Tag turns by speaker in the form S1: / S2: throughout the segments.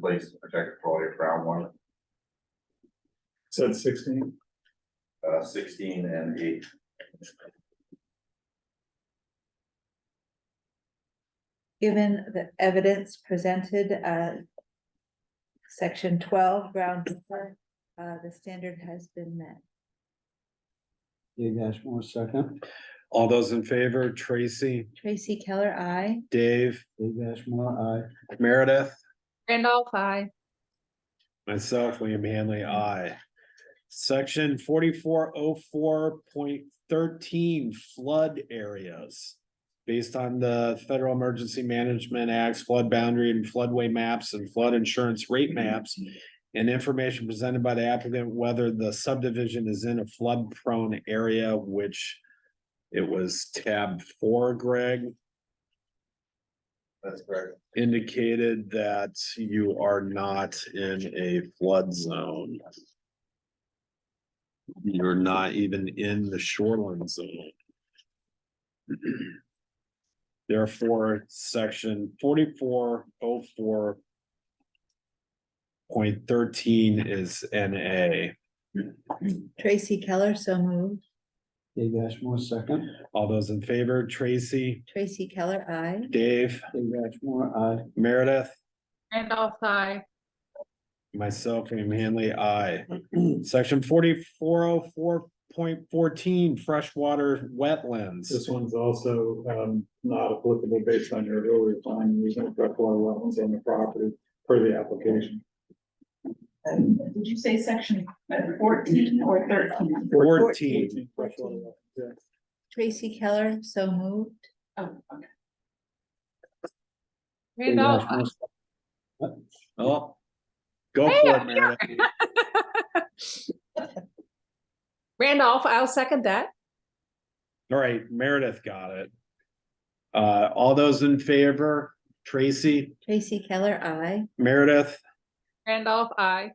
S1: place to protect quality of groundwater,
S2: Said sixteen,
S1: uh, sixteen and eight.
S3: Given the evidence presented, uh. Section twelve, groundwater, uh, the standard has been met.
S4: Dave Ashmore, second.
S5: All those in favor, Tracy,
S3: Tracy Keller, I.
S5: Dave,
S4: Dave Ashmore,
S5: Meredith,
S6: Randolph, I.
S5: myself, William Hanley, I. Section forty-four oh four point thirteen flood areas. Based on the Federal Emergency Management Act's flood boundary and floodway maps and flood insurance rate maps. And information presented by the applicant whether the subdivision is in a flood prone area, which. It was tab four, Greg.
S1: That's correct.
S5: indicated that you are not in a flood zone. You're not even in the shoreline zone. Therefore, section forty-four oh four point thirteen is NA.
S3: Tracy Keller, so moved.
S4: aye. Dave Ashmore, second.
S5: All those in favor, Tracy,
S3: Tracy Keller, I.
S5: Dave,
S4: Dave Ashmore, aye.
S5: Meredith?
S6: Randolph, I.
S5: Myself, William Hanley, I. Section forty-four oh four point fourteen, freshwater wetlands.
S2: this one's also um not applicable based on your earlier plan, using freshwater wetlands on the property per the application.
S7: Uh, Did you say section uh, fourteen or thirteen?
S5: Fourteen,
S2: Freshwater wetlands, yeah.
S3: Tracy Keller, so moved.
S7: Oh, okay.
S4: Dave
S6: Randolph, I.
S4: Ashmore,
S5: oh. Go
S6: Hey,
S5: for it,
S6: I'm
S5: Meredith.
S6: Randolph, I'll second that.
S5: All right, Meredith got it. Uh, all those in favor, Tracy,
S3: Tracy Keller, I.
S5: Meredith,
S6: Randolph, I.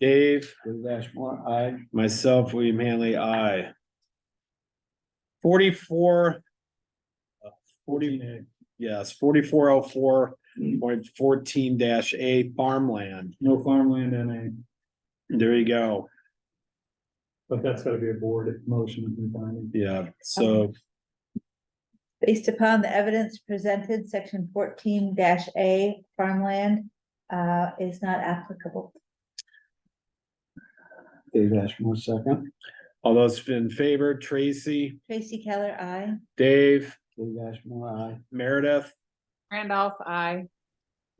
S5: Dave?
S4: Dave Ashmore, aye.
S5: Myself, William Hanley, I. Forty-four. uh, Forty, yes, forty-four oh four point fourteen dash A farmland.
S2: No farmland in a,
S5: There you go.
S2: but that's gotta be a board motion and finding.
S5: Yeah, so
S3: Based upon the evidence presented, section fourteen A farmland uh is not applicable.
S4: Dave Ashmore, second.
S5: all those in favor, Tracy,
S3: Tracy Keller, I.
S5: Dave,
S4: Dave Ashmore, aye.
S5: Meredith,
S6: Randolph, I.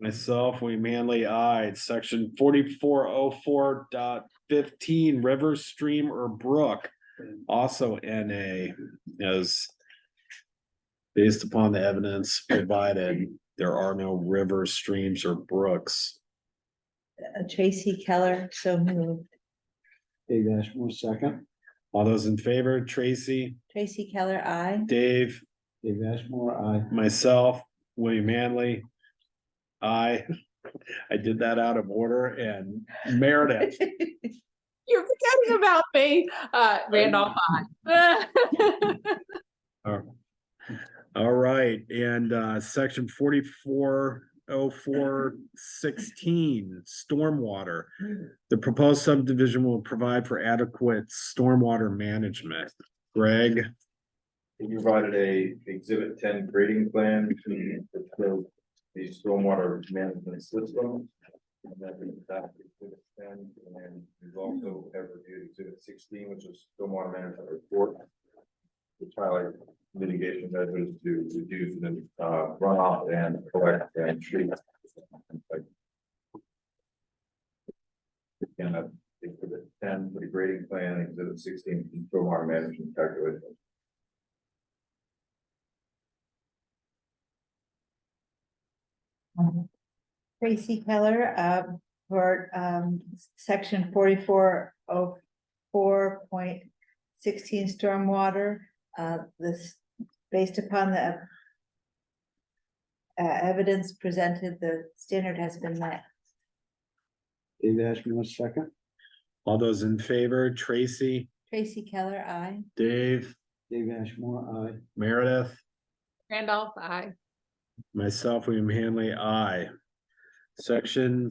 S5: myself, William Hanley, I. Section forty-four oh four dot fifteen, river, stream, or brook. Also NA as based upon the evidence provided, there are no rivers, streams, or brooks.
S3: Uh, Tracy Keller, so moved.
S4: Dave Ashmore, second.
S5: All those in favor, Tracy,
S3: Tracy Keller, I.
S5: Dave,
S4: Dave Ashmore, aye.
S5: myself, William Manley. I, I did that out of order and Meredith,
S6: You're forgetting about me. Uh, Randolph, I.
S5: all right, and uh, section forty-four oh four sixteen, stormwater. The proposed subdivision will provide for adequate stormwater management. Greg?
S1: We provided a exhibit ten grading plan to show the stormwater management system. And that we adopted exhibit 10, and then we've also have reviewed exhibit sixteen, which is stormwater management report. Which highlight mitigation measures to reduce the uh, runoff and collect and treat. And uh, exhibit ten for the grading plan, exhibit sixteen for stormwater management calculation.
S3: Tracy Keller, uh, for, um, section forty-four oh four point sixteen stormwater, uh, this, based upon the uh, evidence presented, the standard has been met.
S4: Dave Ashmore, second.
S5: All those in favor, Tracy,
S3: Tracy Keller, I.
S5: Dave,
S4: Dave Ashmore, aye.
S5: Meredith,
S6: Randolph, I.
S5: myself, William Hanley, I. Section